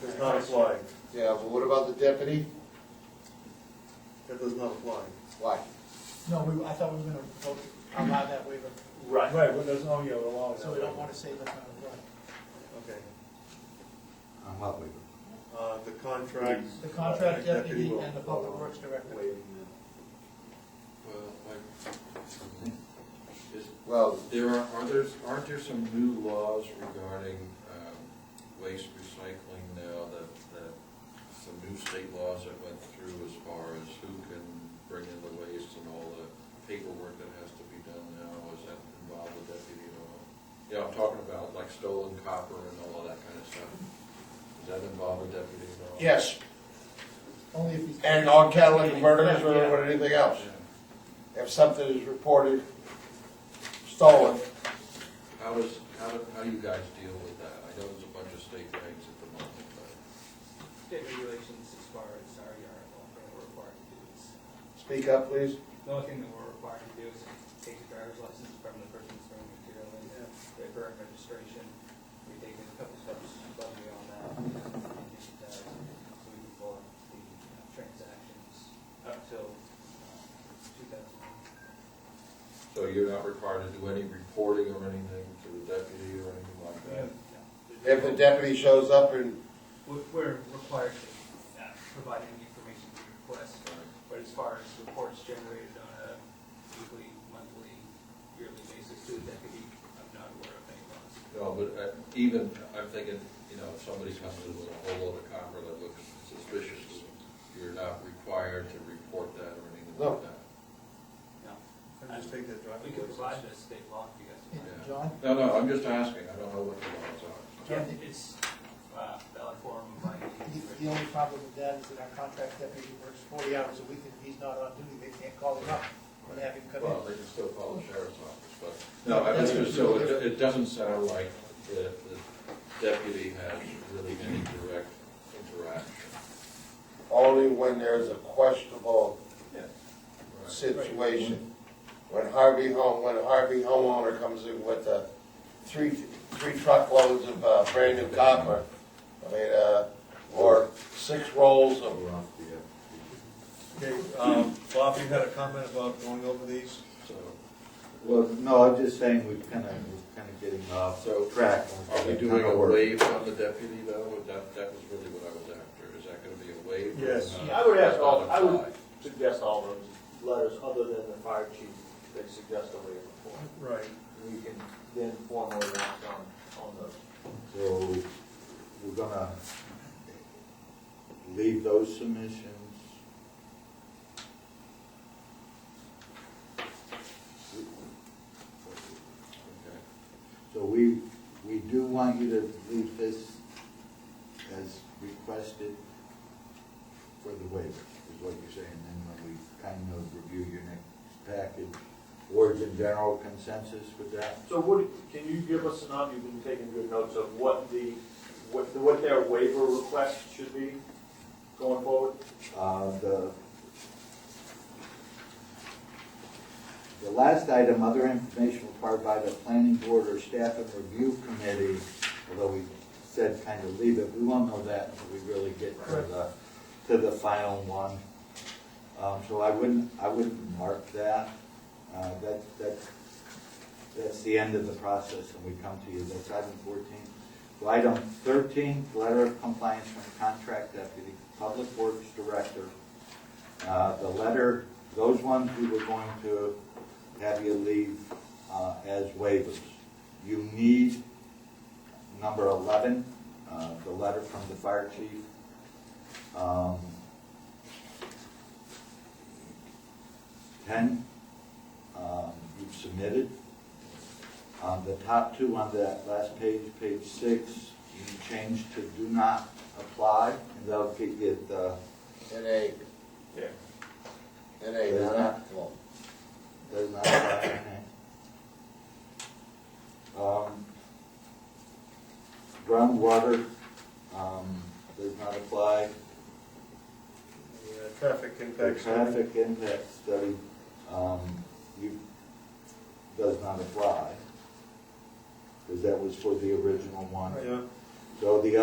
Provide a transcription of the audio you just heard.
does not apply. Yeah, but what about the deputy? That does not apply. Why? No, we, I thought we were gonna vote, allow that waiver, Right. Right, well, there's, oh, yeah, well, so we don't wanna say that, uh, right. Okay, I'm not leaving. uh, the contract. The contract deputy will and the public follow works director. waiving Well, like, is, Well, there are, are there, aren't there some new laws regarding, um, waste recycling now that, that some new state laws that went through as far as who can bring in the waste and all the paperwork that has to be done now, is that involved the deputy at all? Yeah, I'm talking about like stolen copper and all of that kind of stuff. Does that involve the deputy at all? yes, Only if he's. and on catalytic converters or Yeah. or anything else. Yeah. If something is reported stolen, How is, how do, how do you guys deal with that? I know there's a bunch of state regs at the moment, but. state regulations as far as our yard law, that we're required to do is, speak up, please. the only thing that we're required to do is take the driver's license from the person that's throwing material in, their current registration. We take a couple steps above and beyond that, and, uh, we move forward the uh, transactions up till uh, two thousand. So you're not required to do any reporting or anything to the deputy or anything like that? If the deputy shows up and We're, we're required to uh, provide any information we request, But as far as reports generated on a weekly, monthly, yearly basis to the deputy, I'm not aware of any laws. No, but uh, even, I'm thinking, you know, if somebody comes in with a whole load of copper that looks suspicious, you're not required to report that or anything No. like that? No. And just take that driving. We could provide license. the state law if you guys Yeah, would like. Yeah. John? No, no, I'm just asking, I don't know what the laws are. Yeah. It's uh, valid form of my. The, the only problem with that is that our contract deputy works forty hours a week, and if he's not on duty, they can't call him up and have him come Well, in. they can still call the sheriff's office, but, No, no, I that's mean, what- so it, it doesn't sound like the, the deputy has really any direct interaction. only when there's a questionable Right. situation. When Harvey home, when Harvey homeowner comes in with uh three, three truckloads of, uh, brand new copper, I mean, uh, or six rolls of Okay, um, Bob, you had a comment about going over these? So, Well, no, I'm just saying we're kind of, we're kind of getting off So, track. are we doing a wave on the deputy though? That, that was really what I was after. Is that gonna be a wave? Yes. I would ask all, I would suggest all those letters, other than the fire chief, they suggest a waiver for. Right. We can then formally act on, on those. So we're gonna leave those submissions. So we, we do want you to leave this as requested for the waiver, is what you're saying. Then when we kind of review your next package, words in general consensus with that? So what, can you give us an, op- you've been taking good notes of what the, what, the- what their waiver request should be going forward? Uh, The, the last item, other information required by the planning board or staff and review committee, although we said kind of leave it, we won't know that until we really get to the, to the final one. Um, So I wouldn't, I wouldn't mark that. Uh, That, that, that's the end of the process and we come to you, that's item fourteen. So item thirteen, letter of compliance from contract deputy, public works director. Uh, The letter, those ones we were going to have you leave uh, as waivers. You need number eleven, uh, the letter from the fire chief. Um, Ten, um, you've submitted. Um, the top two on that last page, page six, you can change to do not apply, and that'll get uh, you the, An egg. Yeah. An egg, not an apple. does not apply, okay? Um, groundwater, um, does not apply. The uh, traffic The impact. study. traffic impact study, um, you, does not apply, because that was for the original one. Yeah. So the